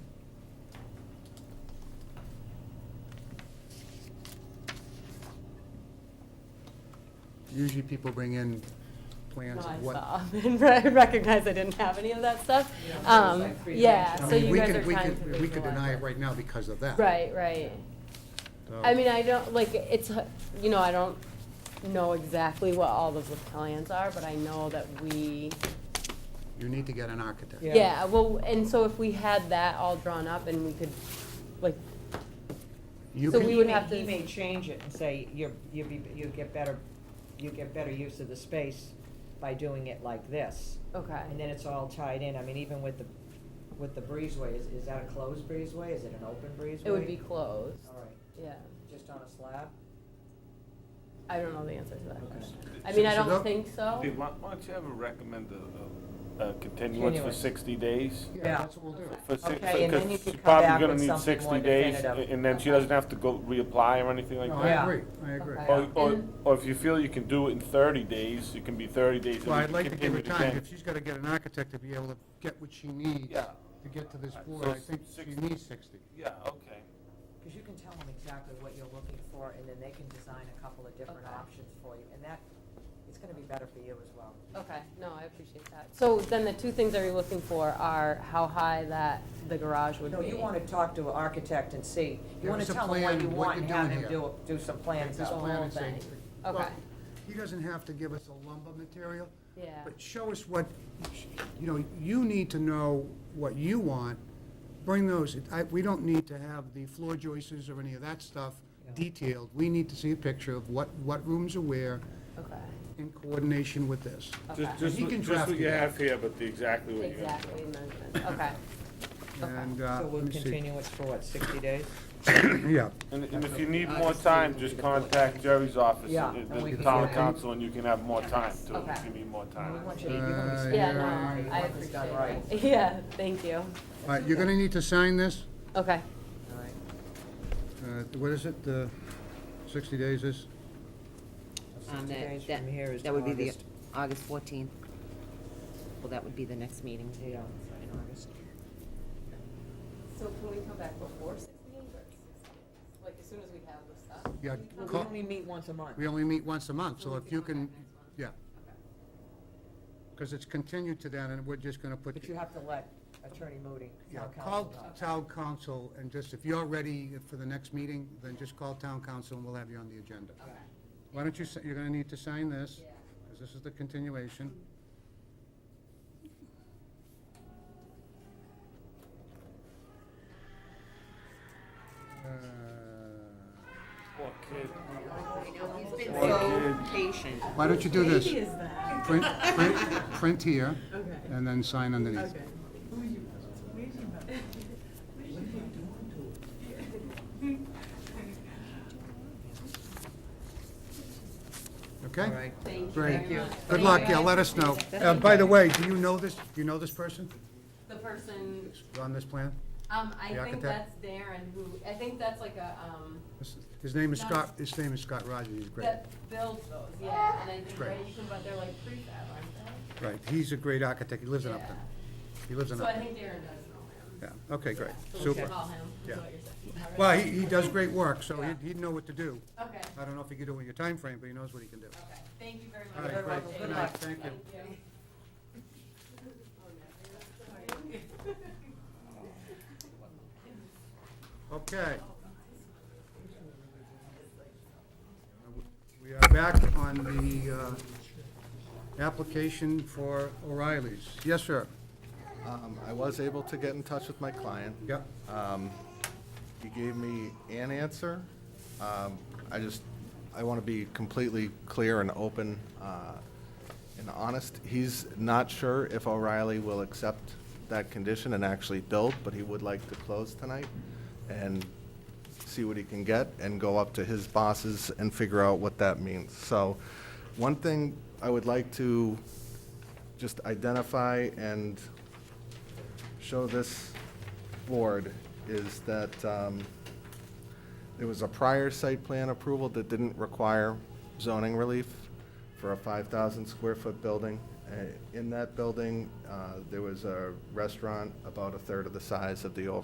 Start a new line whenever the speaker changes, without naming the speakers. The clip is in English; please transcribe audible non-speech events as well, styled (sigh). usually people bring in plans
I
of what.
saw and re- recognized (laughs) I didn't have any of that stuff. Um,
like three
Yeah,
I
so
mean,
you
we
guys
could-
are
we
trying
could-
to.
We could
visualize
deny
it.
it right now because of that.
Right, right.
So-
I mean, I don't, like, it's, h- you know, I don't know exactly what all of the plans are, but I know that we,
You need to get an architect.
Yeah.
yeah, well, and so if we had that all drawn up and we could, like,
You
So
can-
we
He
would
may-
have to-
He may change it and say, you're, you be, you get better, you get better use of the space by doing it like this.
okay.
And then it's all tied in, I mean, even with the, with the breezeway, is, is that a closed breezeway, is it an open breezeway?
It would be closed,
All right,
yeah.
just on a slab?
I don't know the answer to that question. I
So-
mean, I
so
don't
that-
think so.
Dave, why why don't you ever recommend uh, a- a, a continuance for
Continuance.
sixty days?
Yeah,
Yeah.
that's what we'll do.
For six,
Okay, and then you
because
could
she's
come
probably
back
gonna
with
need
something more
sixty days,
definitive.
and then she doesn't have to go reapply or anything like
No,
that.
I
Yeah.
agree, I agree.
Okay.
Or, or,
And-
or if you feel you can do it in thirty days, it can be thirty days. and
Well,
we
I'd
can
like to give her
continue it
time,
again.
if she's gotta get an architect to be able to get what she needs
Yeah.
to get to this
So
board, I think she
60.
needs sixty.
Yeah, okay.
Because you can tell them exactly what you're looking for, and then they can design a couple of different
Okay.
options for you, and that, it's gonna be better for you as well.
Okay, no, I appreciate that. So then the two things that you're looking for are how high that, the garage would be?
No, you wanna talk to an architect and see, you
Give
wanna
us a
tell them what
plan,
you
what
want
you're
and have
doing
them
here.
do, do some plans
This
out.
whole
plan and say-
thing.
well,
Okay.
He doesn't have to give us a lumber material,
Yeah,
but show us what, you know, you need to know what you want, bring those, I, we don't need to have the floor joists or any of that stuff
Yeah.
detailed, we need to see a picture of what, what rooms are where
okay,
in coordination with this.
okay.
Just, just,
He
what-
can
just
draft
what you
it.
have here, but the, exactly what you're gonna do.
Exactly, measurements, okay. Okay.
And, uh,
So we'll
let me see.
continue it for what, sixty days?
(coughs) Yeah,
And, and if you need more time, just contact Jerry's office,
Yeah,
uh,
and we
the
can
town
figure it out.
council, and you can have more time too,
Okay.
if you need more
Uh,
time.
We want you to- you're gonna be
Uh,
Yeah,
spending money, you
no, I
want this
appreciate
done right.
that. (laughs) Yeah, thank you.
all right, you're gonna need to sign this,
Okay,
All right,
Um,
uh, what is it, the sixty days is?
so
on
60
Um, that,
days
that,
from here is
that would be the
August.
August fourteenth. Well, that would be the next meeting.
Yeah,
In August.
so can we come back before six meetings or six? Like, as soon as we have this stuff?
Yeah,
Well, We
call-
only meet once a month.
we only meet once a month, so if you can, yeah. Because it's continued to that, and we're just gonna put.
But you have to let Attorney Moody,
Yeah,
town
call
council, know.
town council, and just, if you're ready for the next meeting, then just call town council and we'll have you on the agenda. Why don't you, si- you're gonna need to sign this, because this is the continuation. Uh,
Poor kid.
He's been
so
so patient.
Why don't you do this? Print,
(laughs)
print, print here, and then sign underneath. Okay?
All right.
Great.
Thank you.
Good luck, yeah, let us know. Uh, By the way, do you know this, do you know this person
The person,
on this plan?
um,
The
I think
architect?
that's Darren who, I think that's like a, um,
This- His name is Scott, his name is Scott Rogers, he's great.
that builds those, yeah, and I think,
Great.
right, you can, but they're like prefab, aren't
Right, he's a great architect, he lives
they?
in
Yeah.
Upton. He lives in
So I
Upton.
think Darren does know him.
Yeah, okay, great,
So we should
super.
Call him, is
Yeah.
what you're saying. All right.
Well, he, he does great work, so
Yeah.
he'd, he'd know what to do.
Okay,
I don't know if he could do it in your time frame, but he knows what he can do.
okay, thank you very
All
much.
right,
Everyone,
great.
good
Good night.
luck.
Thank you.
Thank you.
Okay. We are back on the uh, application for O'Reilly's. Yes, sir.
Um, I was able to get in touch with my client.
Yep.
He gave me an answer. Um, I just, I want to be completely clear and open uh, and honest. He's not sure if O'Reilly will accept that condition and actually build, but he would like to close tonight and see what he can get and go up to his bosses and figure out what that means. So, one thing I would like to just identify and show this board is that um, there was a prior site plan approval that didn't require zoning relief for a 5,000 square foot building. Uh, In that building, uh, there was a restaurant about a third of the size of the overall